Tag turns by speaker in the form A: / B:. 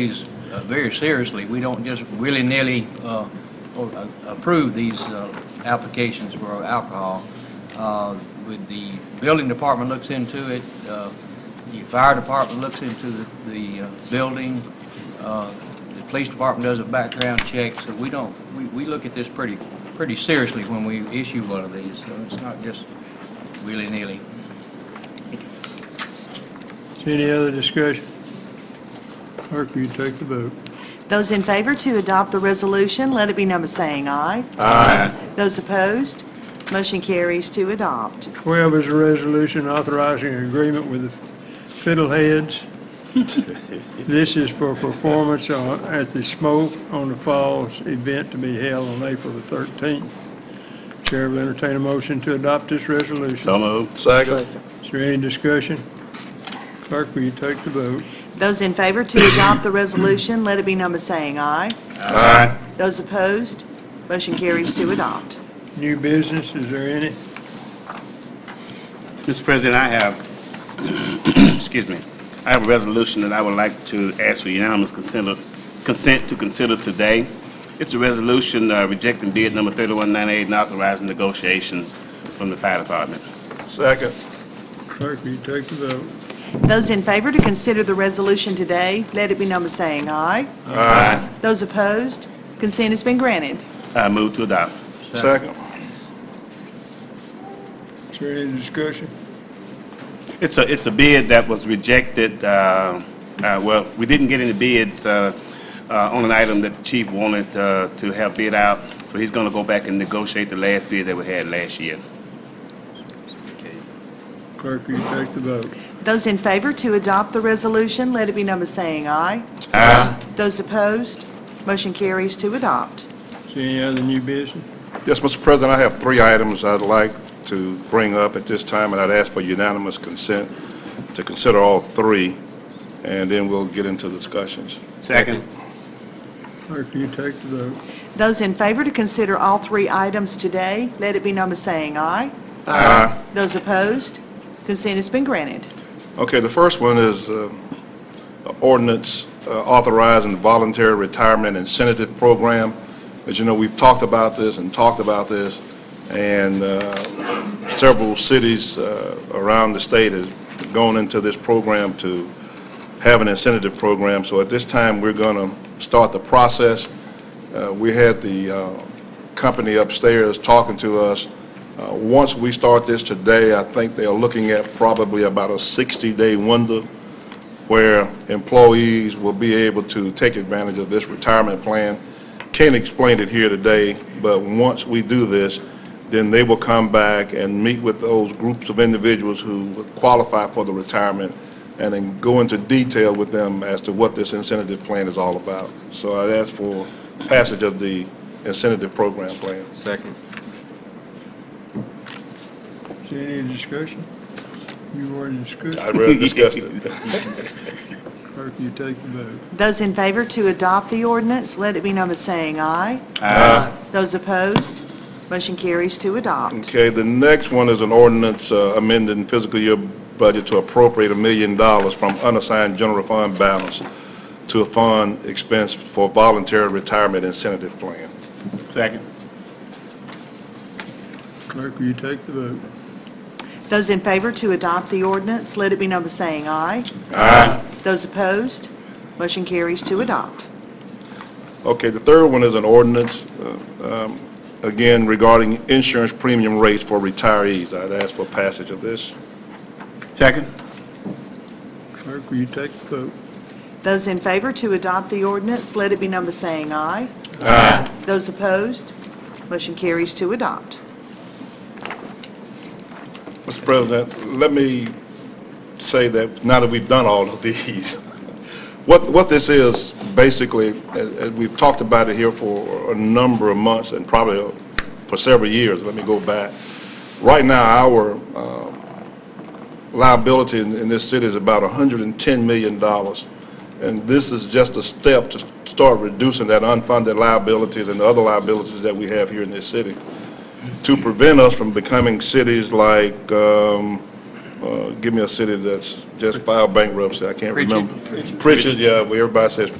A: these uh, very seriously. We don't just willy-nilly uh, or, uh, approve these uh, applications for alcohol. Uh, With the building department looks into it, uh, the fire department looks into the- the uh, building, uh, the police department does a background check, so we don't, we we look at this pretty, pretty seriously when we issue one of these, so it's not just willy-nilly.
B: Any other discussion? Clerk, will you take the vote?
C: Those in favor to adopt the resolution, let it be number saying aye. Aye. Those opposed, motion carries to adopt.
B: 12 is a resolution authorizing an agreement with the Fiddleheads. This is for performance on- at the Smoke on the Falls event to be held on April the 13th. Chair will entertain a motion to adopt this resolution.
D: So moved. Second.
B: Is there any discussion? Clerk, will you take the vote?
C: Those in favor to adopt the resolution, let it be number saying aye.
D: Aye.
C: Those opposed, motion carries to adopt.
B: New business, is there any?
D: Mr. President, I have, excuse me, I have a resolution that I would like to ask for unanimous consent consent to consider today. It's a resolution uh, rejecting bid number 3198 and authorizing negotiations from the fire department.
E: Second.
B: Clerk, will you take the vote?
C: Those in favor to consider the resolution today, let it be number saying aye.
D: Aye.
C: Those opposed, consent has been granted.
D: I move to adopt.
E: Second.
B: Is there any discussion?
D: It's a, it's a bid that was rejected, uh, uh, well, we didn't get any bids uh, uh, on an item that the chief wanted uh, to have bid out, so he's going to go back and negotiate the last bid that we had last year.
B: Clerk, will you take the vote?
C: Those in favor to adopt the resolution, let it be number saying aye.
D: Aye.
C: Those opposed, motion carries to adopt.
B: Is there any other new business?
E: Yes, Mr. President, I have three items I'd like to bring up at this time, and I'd ask for unanimous consent to consider all three, and then we'll get into discussions.
D: Second.
B: Clerk, will you take the vote?
C: Those in favor to consider all three items today, let it be number saying aye.
E: Aye.
C: Those opposed, consent has been granted.
E: Okay, the first one is uh, ordinance uh, authorizing the voluntary retirement incentive program. As you know, we've talked about this and talked about this, and uh, several cities uh, around the state have gone into this program to have an incentive program. So at this time, we're going to start the process. Uh, We had the uh, company upstairs talking to us. Uh, Once we start this today, I think they're looking at probably about a 60-day window where employees will be able to take advantage of this retirement plan. Can't explain it here today, but once we do this, then they will come back and meet with those groups of individuals who would qualify for the retirement and then go into detail with them as to what this incentive plan is all about. So I'd ask for passage of the incentive program plan.
F: Second.
B: Is there any discussion? You already discussed.
E: I already discussed it.
B: Clerk, will you take the vote?
C: Those in favor to adopt the ordinance, let it be number saying aye.
D: Aye.
C: Those opposed, motion carries to adopt.
E: Okay, the next one is an ordinance uh, amending fiscal year budget to appropriate a million dollars from unassigned general fund balance to a fund expense for voluntary retirement incentive plan.
D: Second.
B: Clerk, will you take the vote?
C: Those in favor to adopt the ordinance, let it be number saying aye.
D: Aye.
C: Those opposed, motion carries to adopt.
E: Okay, the third one is an ordinance, uh, um, again regarding insurance premium rates for retirees. I'd ask for passage of this.
D: Second.
B: Clerk, will you take the vote?
C: Those in favor to adopt the ordinance, let it be number saying aye. Aye. Those opposed, motion carries to adopt.
E: Mr. President, let me say that now that we've done all of these, what, what this is, basically, and- and we've talked about it here for a number of months and probably for several years, let me go back. Right now, our um, liability in in this city is about $110 million, and this is just a step to start reducing that unfunded liabilities and the other liabilities that we have here in this city to prevent us from becoming cities like, um, uh, give me a city that's just filed bankruptcy, I can't
A: Pritchard.
E: remember. Pritchard, yeah, where everybody says